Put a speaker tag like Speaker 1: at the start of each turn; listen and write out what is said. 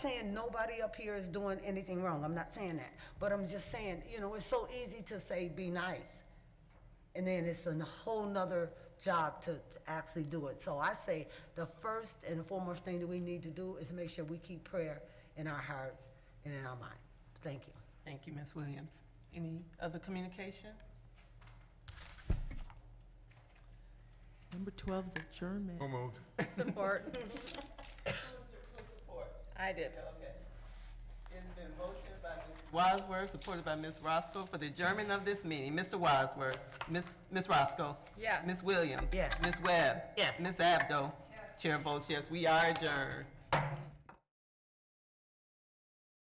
Speaker 1: saying nobody up here is doing anything wrong. I'm not saying that. But I'm just saying, you know, it's so easy to say be nice. And then it's a whole nother job to, to actually do it. So I say the first and foremost thing that we need to do is make sure we keep prayer in our hearts and in our mind. Thank you.
Speaker 2: Thank you, Ms. Williams. Any other communication?
Speaker 3: Number 12 is adjournment.
Speaker 4: So moved.
Speaker 5: Support. I did.
Speaker 2: Okay. It's been motioned by Ms. Wadsworth, supported by Ms. Roscoe, for the adjournment of this meeting. Mr. Wadsworth, Ms. Ms. Roscoe.
Speaker 5: Yes.
Speaker 2: Ms. Williams.
Speaker 1: Yes.
Speaker 2: Ms. Webb.
Speaker 1: Yes.
Speaker 2: Ms. Abdo. Chair votes yes, we are adjourned.